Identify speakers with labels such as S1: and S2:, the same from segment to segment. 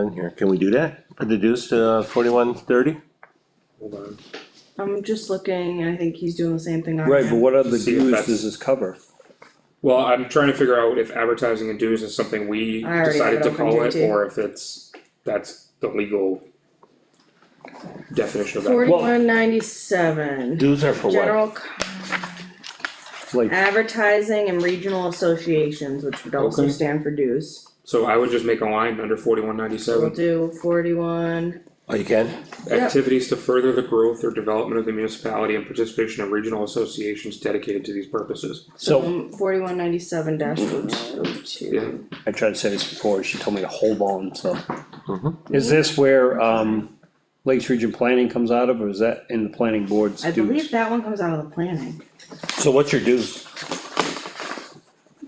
S1: In here, can we do that? Put the dues to forty-one thirty?
S2: Hold on.
S3: I'm just looking, and I think he's doing the same thing on
S4: Right, but
S3: him.
S4: what other
S2: See if
S4: dues
S2: that's-
S4: does this cover?
S2: Well, I'm trying to figure out if advertising and dues is something we
S3: I already have
S2: decided
S3: it
S2: to
S3: up on
S2: call it,
S3: DT.
S2: or if it's, that's the legal definition of that.
S3: Forty-one ninety-seven,
S1: Dues are for what?
S3: general co-
S4: Like,
S3: advertising and regional associations, which would also
S2: Okay.
S3: stand for dues.
S2: So I would just make a line under forty-one
S3: So we'll
S2: ninety-seven,
S3: do forty-one,
S1: Oh, you can?
S3: Yep.
S2: activities to further the growth or development of the municipality and participation of regional associations dedicated to these purposes.
S4: so,
S3: um, forty-one ninety-seven dash oh
S2: Yeah.
S3: two.
S4: I tried to say this before, she told me to hold on, so.
S1: Mm-hmm.
S4: Is this where, um, Lakes Region Planning comes out of, or is that in the planning board's
S3: I
S4: dues?
S3: believe that one comes out of the planning,
S4: So what's your dues?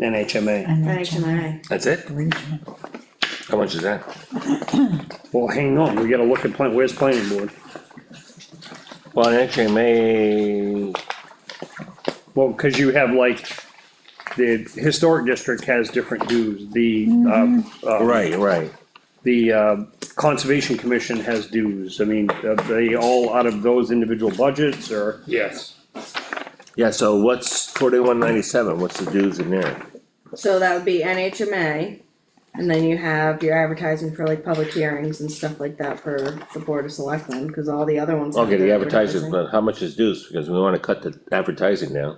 S4: NHMA,
S3: NHMA,
S1: That's it? How much is that?
S4: well, hang on, we gotta look at plan, where's planning board?
S1: Well, actually, May,
S4: Well, cause you have like, the historic district has different dues, the,
S5: Mm-hmm.
S4: uh, uh,
S1: right, right.
S4: The uh, Conservation Commission has dues, I mean, are they all out of those individual budgets, or?
S2: Yes.
S1: Yeah, so what's forty-one ninety-seven? What's the dues in there?
S3: so that would be NHMA. And then you have your advertising for like public hearings and stuff like that for the board of selectmen, cause all the other ones. have
S1: Okay, the
S3: their
S1: advertising, but how much is dues? Because we wanna cut the advertising down.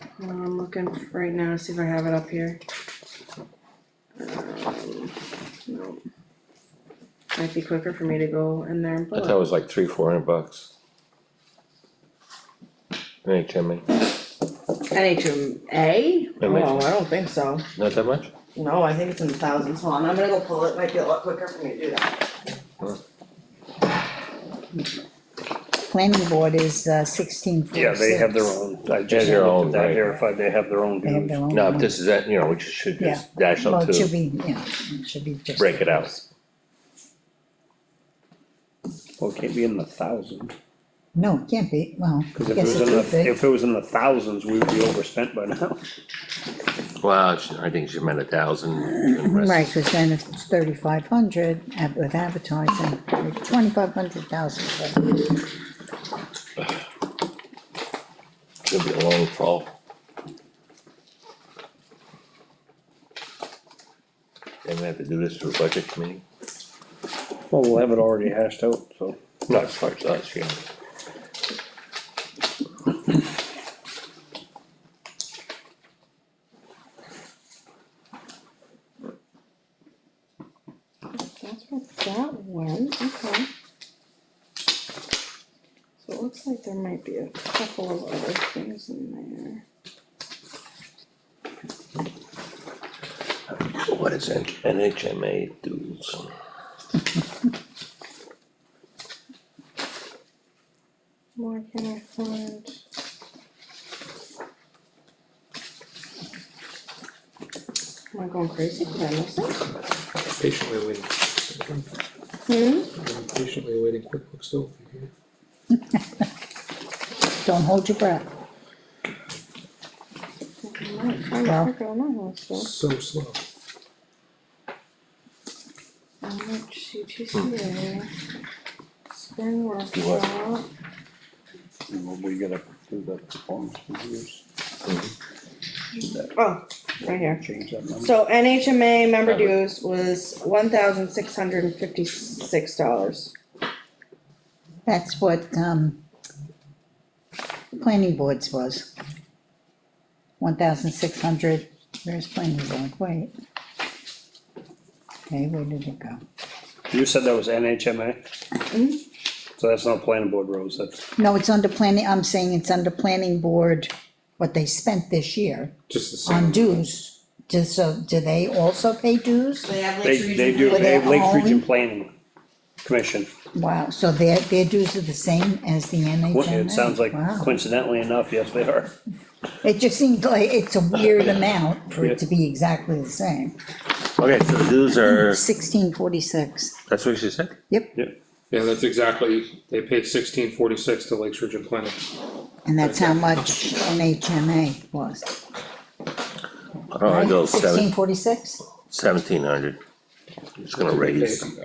S3: Uh, I'm looking right now, to see if I have it up here. Um, no. Might be quicker for me to go in there and
S1: I
S3: pull
S1: thought it
S3: it.
S1: was like three, four hundred bucks. NHMA,
S3: NHMA? Oh,
S1: Imagine.
S3: I don't think so.
S1: not that much?
S3: No, I think it's in the thousands. Hold on, I'm gonna go pull it. Might be a lot quicker for me to do that.
S5: planning board is uh, sixteen forty-six.
S4: Yeah, they have their own, I just
S1: their own,
S4: looked at
S1: right.
S4: that, verified, they have their own
S5: They have their
S4: dues.
S5: own.
S1: No, if this is that, you know, we just should just dash
S5: Well,
S1: up
S5: it should
S1: to,
S5: be, yeah, it should be just.
S1: break it out.
S4: Well, it can't be in the thousand,
S5: No, it can't be, well,
S4: cause if it
S5: yes,
S4: was
S5: it
S4: in
S5: could
S4: the,
S5: be,
S4: if it was in the thousands, we would be overspent by now.
S1: Well, she- I think she meant a thousand. and rest-
S5: right, cause then if it's thirty-five hundred with advertising, twenty-five hundred thousand.
S1: It'll be a long fall. And we have to do this for budget committee,
S4: Well, we'll have it already hashed out, so.
S1: not as far as us, yeah.
S3: That's where that went, okay. So it looks like there might be a couple of other things in there.
S1: What is it? NHMA dues.
S3: Why can I find? Am I going crazy? Did I miss it?
S2: Patiently waiting,
S3: Hmm?
S2: patiently waiting QuickBooks still.
S5: Don't hold your breath,
S3: I might find it
S5: Well.
S3: quicker than I was, though.
S2: So slow.
S3: How much CTCA? Spring
S1: what?
S3: workshop.
S4: We gotta do the performance reviews,
S3: Oh, right here.
S4: change that number.
S3: So NHMA member
S1: Cover.
S3: dues was one thousand six hundred and fifty-six dollars.
S5: that's what, um, the planning boards was. One thousand six hundred, where's planning board, wait. Okay, where did it go?
S4: You said that was NHMA? So that's not planning board roads, that's,
S5: No, it's under planning, I'm saying it's under planning board, what they spent this year
S2: Just the same.
S5: on dues. Do so, do they also pay dues?
S3: They have
S4: they, they do,
S5: Were
S4: they
S5: they
S4: have Lakes
S5: all in?
S4: Region Planning Commission.
S5: Wow, so their, their dues are the same as the
S4: Well,
S5: NHMA?
S4: It sounds like
S5: Wow,
S4: coincidentally enough, yes, they are.
S5: it just seems like it's a weird amount for
S4: Yeah.
S5: it to be exactly the same.
S1: Okay, so the dues are,
S5: Sixteen forty-six,
S1: that's what she said?
S5: yep,
S2: Yeah, that's exactly, they pay sixteen forty-six to Lakes Region Planning.
S5: and that's how much NHMA was.
S1: Oh, I don't wanna go seven,
S4: Oh,
S5: Sixteen forty-six?
S1: seventeen hundred. Just gonna raise.